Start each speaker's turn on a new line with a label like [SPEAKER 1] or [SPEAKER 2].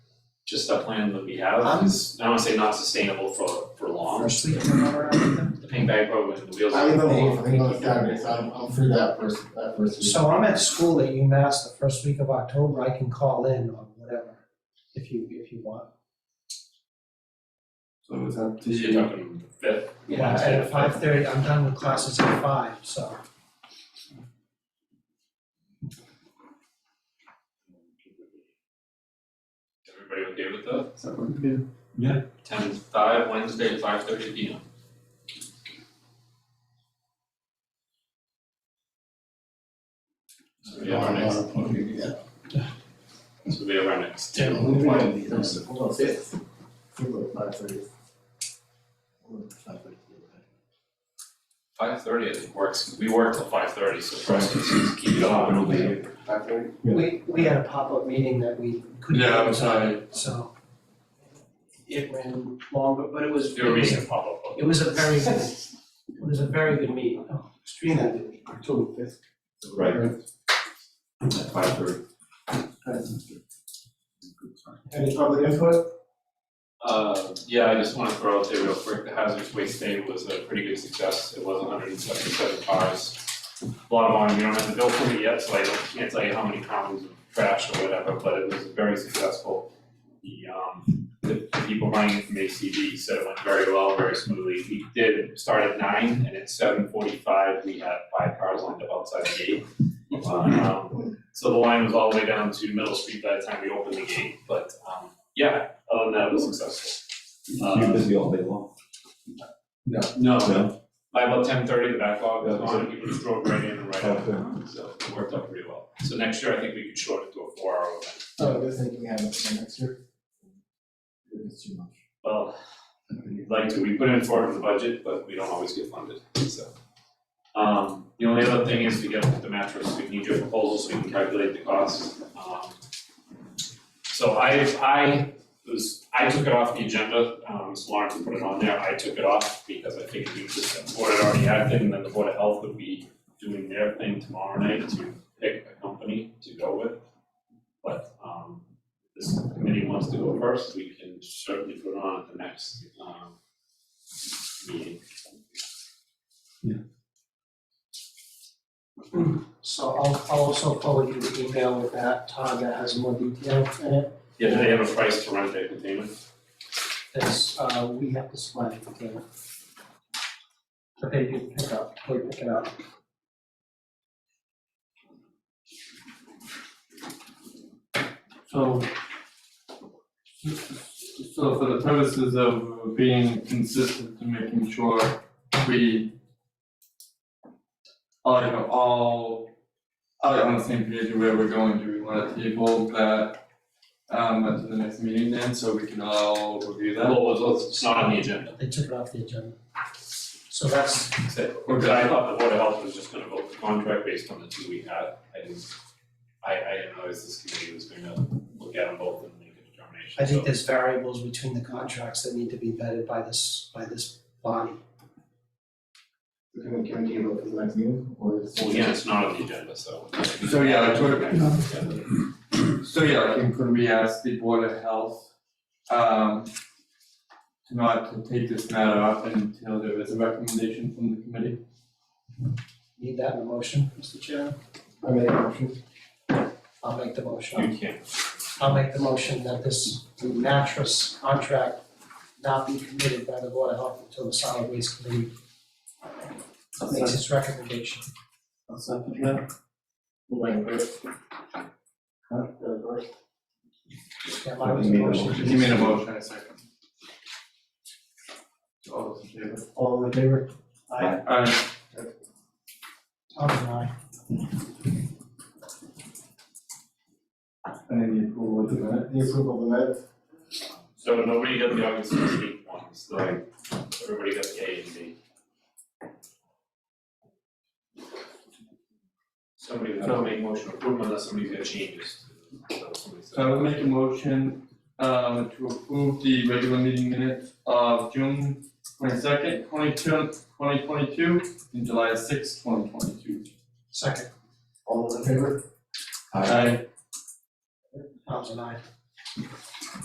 [SPEAKER 1] just the plan that we have
[SPEAKER 2] I'm-
[SPEAKER 1] is, I don't wanna say not sustainable for for long.
[SPEAKER 2] Freshly turned over everything.
[SPEAKER 1] The pink bag program, the wheels
[SPEAKER 3] I
[SPEAKER 1] are
[SPEAKER 3] live on the
[SPEAKER 1] off.
[SPEAKER 3] eighth, I think on Saturday, so I'm, I'm free that first, that first week.
[SPEAKER 2] So I'm at school at UMass the first week of October, I can call in on whatever, if you, if you want.
[SPEAKER 3] So is that
[SPEAKER 1] So You're talking fifth,
[SPEAKER 2] Yeah, at five thirty, I'm done with classes at five, so.
[SPEAKER 1] everybody okay with that?
[SPEAKER 3] Does that work? Yeah.
[SPEAKER 1] Ten to five, Wednesday at five thirty P M. So we have our next,
[SPEAKER 3] Yeah.
[SPEAKER 1] so we have our next.
[SPEAKER 2] Yeah.
[SPEAKER 3] Moving on, yes, hold on, six. Hold on, five thirty. Hold on, five thirty.
[SPEAKER 1] Five thirty, I think works, we work till five thirty, so for us, it's just keep it on, it'll be.
[SPEAKER 3] Five thirty? Yeah.
[SPEAKER 2] We, we had a pop-up meeting that we couldn't
[SPEAKER 4] Yeah, I
[SPEAKER 2] get
[SPEAKER 4] was
[SPEAKER 2] to, so. It ran longer, but it was,
[SPEAKER 1] There will
[SPEAKER 2] it
[SPEAKER 1] be
[SPEAKER 2] was,
[SPEAKER 1] some pop-up.
[SPEAKER 2] it was a very, good- it was a very good meeting, Oh, extremely good meeting.
[SPEAKER 3] October fifth.
[SPEAKER 1] Right.
[SPEAKER 3] Alright,
[SPEAKER 1] At five thirty.
[SPEAKER 3] that's good. Any public input?
[SPEAKER 1] Uh, yeah, I just wanna throw out there real quick, the hazardous waste day was a pretty good success, it was hundred and seventy-seven cars. A lot of volume, we don't have the bill for it yet, so I don't, can't tell you how many pounds of trash or whatever, but it was very successful. The, um, the the people running it from ACB said it went very well, very smoothly, we did start at nine, and at seven forty-five, we had five cars lined up outside the gate. Um, so the line was all the way down to Middle Street by the time we opened the gate, but, um, yeah, other than that, it was successful. Uh,
[SPEAKER 5] You're busy all day long.
[SPEAKER 1] No,
[SPEAKER 5] No.
[SPEAKER 1] by about ten thirty, the backlog was
[SPEAKER 5] Yeah,
[SPEAKER 1] gone, people just drove right in and right out,
[SPEAKER 5] Okay.
[SPEAKER 1] so it worked out pretty well. So next year, I think we could shorten it to a four hour event.
[SPEAKER 3] So Oh, I guess they can have it for next year. It's too much.
[SPEAKER 1] Well, we'd like to, we put in four in the budget, but we don't always get funded, so. Um, the only other thing is to get the mattress, we need your proposal so we can calculate the cost, um. So I, I was, I took it off the agenda, um, so Lawrence put it on there, I took it off because I figured we just, the board had already acted, and then the board of health would be doing their thing tomorrow night to pick a company to go with. But, um, this committee wants to go first, we can certainly put it on at the next, um, meeting.
[SPEAKER 2] So I'll, I'll also forward you the email with that, Todd, that has more detail in it,
[SPEAKER 1] Yeah, do they have a price to rent their container?
[SPEAKER 2] that's, uh, we have to supply the container. But they do pick up, they pick it up.
[SPEAKER 4] So, so for the purposes of being consistent and making sure we are you know, all are on the same page of where we're going, do we wanna table that um at the next meeting then, so we can all review that?
[SPEAKER 1] Well, it's, it's not on the agenda,
[SPEAKER 2] They took it off the agenda. So that's,
[SPEAKER 1] because I thought the board of health was just gonna vote the contract based on the two we had, I didn't, I, I didn't realize this committee was gonna look at them both and make a determination,
[SPEAKER 2] I think
[SPEAKER 1] so.
[SPEAKER 2] there's variables between the contracts that need to be vetted by this, by this body.
[SPEAKER 3] So Can we, can we deal with the next meeting or is?
[SPEAKER 1] Well, again, it's not on the agenda, so.
[SPEAKER 4] So, yeah, I told it.
[SPEAKER 1] Yeah.
[SPEAKER 4] So yeah, like, and could we ask the Board of Health, um, to not to take this matter up until there is a recommendation from the committee?
[SPEAKER 2] Need that in the motion, Mr. Chair?
[SPEAKER 3] I made a motion.
[SPEAKER 2] I'll make the motion.
[SPEAKER 1] You can't,
[SPEAKER 2] I'll make the motion that this mattress contract not be committed by the Board of Health until the solid waste committee makes its recommendation.
[SPEAKER 3] I'll second that. Wait, first. Huh? Uh, first.
[SPEAKER 2] Yeah, mine was a motion.
[SPEAKER 5] You made the motion.
[SPEAKER 4] You made a motion, I second. All those in favor?
[SPEAKER 3] All in favor?
[SPEAKER 4] Aye.
[SPEAKER 2] Tom and I.
[SPEAKER 4] And then the approval of the minute?
[SPEAKER 3] The approval of the minutes?
[SPEAKER 1] so nobody got the August sixteenth one, so everybody got the A and B. Somebody was gonna make motion approval unless somebody's got changes. So somebody said-
[SPEAKER 4] So I will Uh, make a motion, um, to approve the regular meeting minutes of June twenty-second, twenty-two, twenty twenty-two, and July sixth, twenty twenty-two.
[SPEAKER 2] Second,
[SPEAKER 3] All in favor?
[SPEAKER 4] Aye.
[SPEAKER 2] Tom's and I.